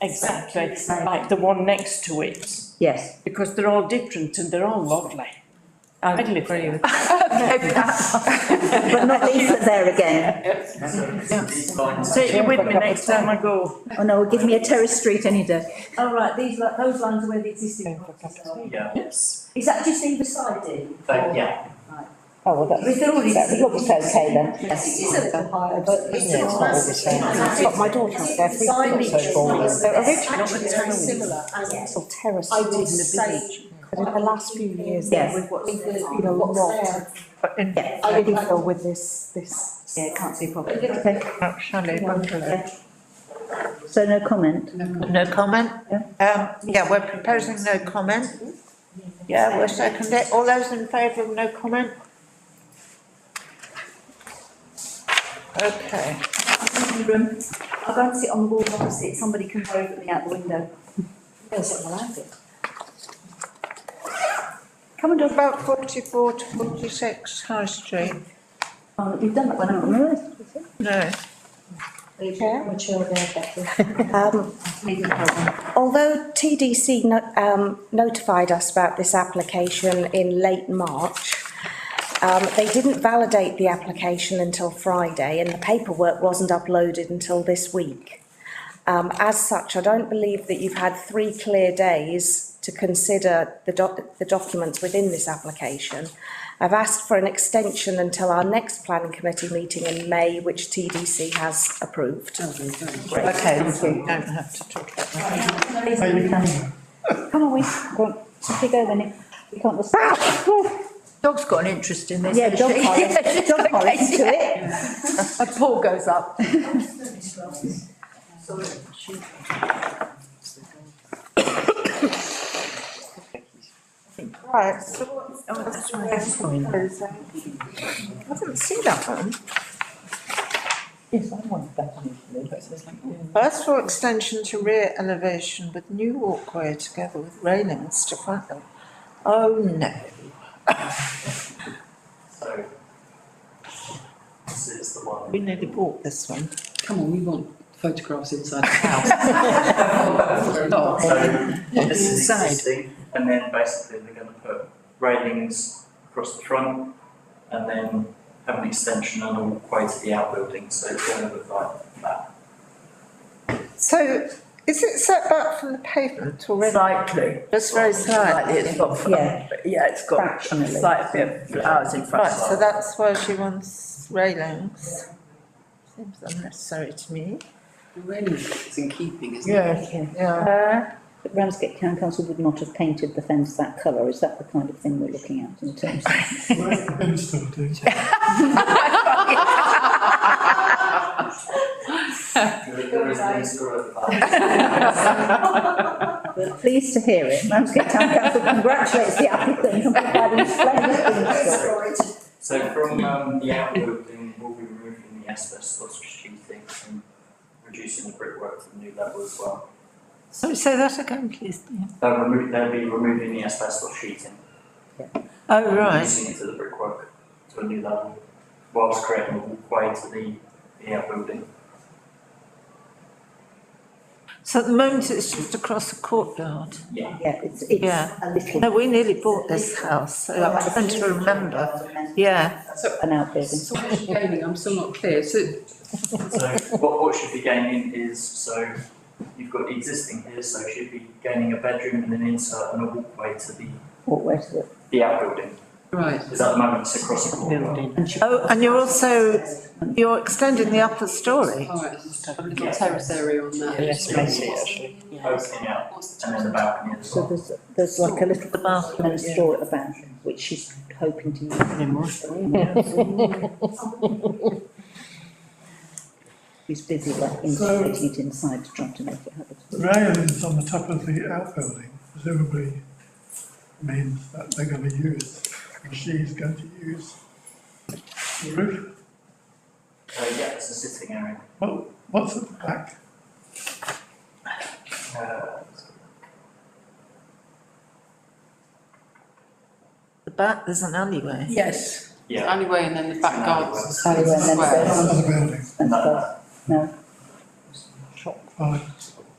Exactly, like the one next to it, Yes. because they're all different and they're all lovely. I'd live there. But not Lisa there again. Take you with me next time I go. Oh no, give me a terrace street any day. Oh, right, these, li- those lines are where the existing properties are. Yeah, Yes. Is that just either side in? but yeah, Oh, well, that's, With all these. that looks okay then. It is a little higher, but it's Yeah, it's not not all the same. It's got my daughter up there, three Design times so far. features. They're Actually, very similar, and original terraces I in would the village, say. but in the last few years, Yes. with what's, with the- you know, what's not. there. But in Yeah. I really feel with this, this. Yeah, can't see a problem. think about chalet bungalow. So no comment? No comment? Um, yeah, we're proposing no comment. Yeah, we'll second it. All those in favour of no comment? Okay, I'm in the room. I'll go and sit on the wall opposite, somebody can wave at me out the window. Yes, I like it. coming to about forty-four to forty-six High Street. Oh, we've done that one, haven't we? No, No, Mature there, better. Um, Leave it alone. although TDC no- um, notified us about this application in late March, um, they didn't validate the application until Friday and the paperwork wasn't uploaded until this week. Um, as such, I don't believe that you've had three clear days to consider the doc- the documents within this application. I've asked for an extension until our next planning committee meeting in May, which TDC has approved. okay, we don't have to talk about that. Come on, we, go on, Sophie, go then. We can't. Dog's got an interest in this. Yeah, dog collar, dog collar into it. A paw goes up. Right, so what's, oh, that's right. I haven't seen that one. Yes, I wanted that initially, but it was like, Ask for extension to rear elevation with new walkway together with railings to front them. Oh, no. so. This is the one. We nearly bought this one. Come on, we want photographs inside the house. Not Oh, So this is Inside. existing, and then basically they're gonna put railings across the front and then have an extension and a walkway to the outbuilding, so it's gonna look like that. So is it set back from the pavement already? Slightly, Just very slightly. slightly, it's got, fl- Yeah. yeah, it's got Fractionally. slight bit of flowers in front Right, of it. so that's where she wants railings. Seems unnecessary to me. It's in keeping, isn't yeah. But Ramsgate Town Council would not have painted the fence that colour, is that the kind of thing we're looking at in terms of? There is an install at the back. We're pleased to hear it, Ramsgate Town Council congratulates the applicant on providing splendid things. So from um, the outbuilding, we'll be removing the asbestos sheathing and reducing the brickwork to the new level as well. So say that again, please. They'll remove, they'll be removing the asbestos sheeting. Oh, and right. Reducing it to the brickwork to a new level, whilst creating a walkway to the, the outbuilding. So at the moment, it's just across the courtyard. Yeah, it's, it's Yeah. a little. No, we nearly bought this house, so I'm trying to remember. Yeah, An outbuilding. So what is gaining, I'm still not clear, so So what, what should be gaining is, so you've got existing here, so she'd be gaining a bedroom and an insert and a walkway to the, walkway to the, the outbuilding. Right, Because at the moment it's across the courtyard. oh, and you're also, you're extending the upper story. all right, a little terrace area on that. yes, I see it, actually. Opening out and then the balcony as so well. there's, there's like a little The bath. man store at the back, which she's hoping to use. She's busy like integrating it inside to try to make it habitable. railings on the top of the outbuilding presumably means that they're going to use, and she's going to use the roof. Uh, yeah, it's a sitting area. What, what's at the back? Uh, The back, there's an alleyway. Yes. yeah. Alleyway and then the It's an back alleyway. gardens. Alleyway and uh, then Square. there's- Front of the building, And No, stuff. no, fine.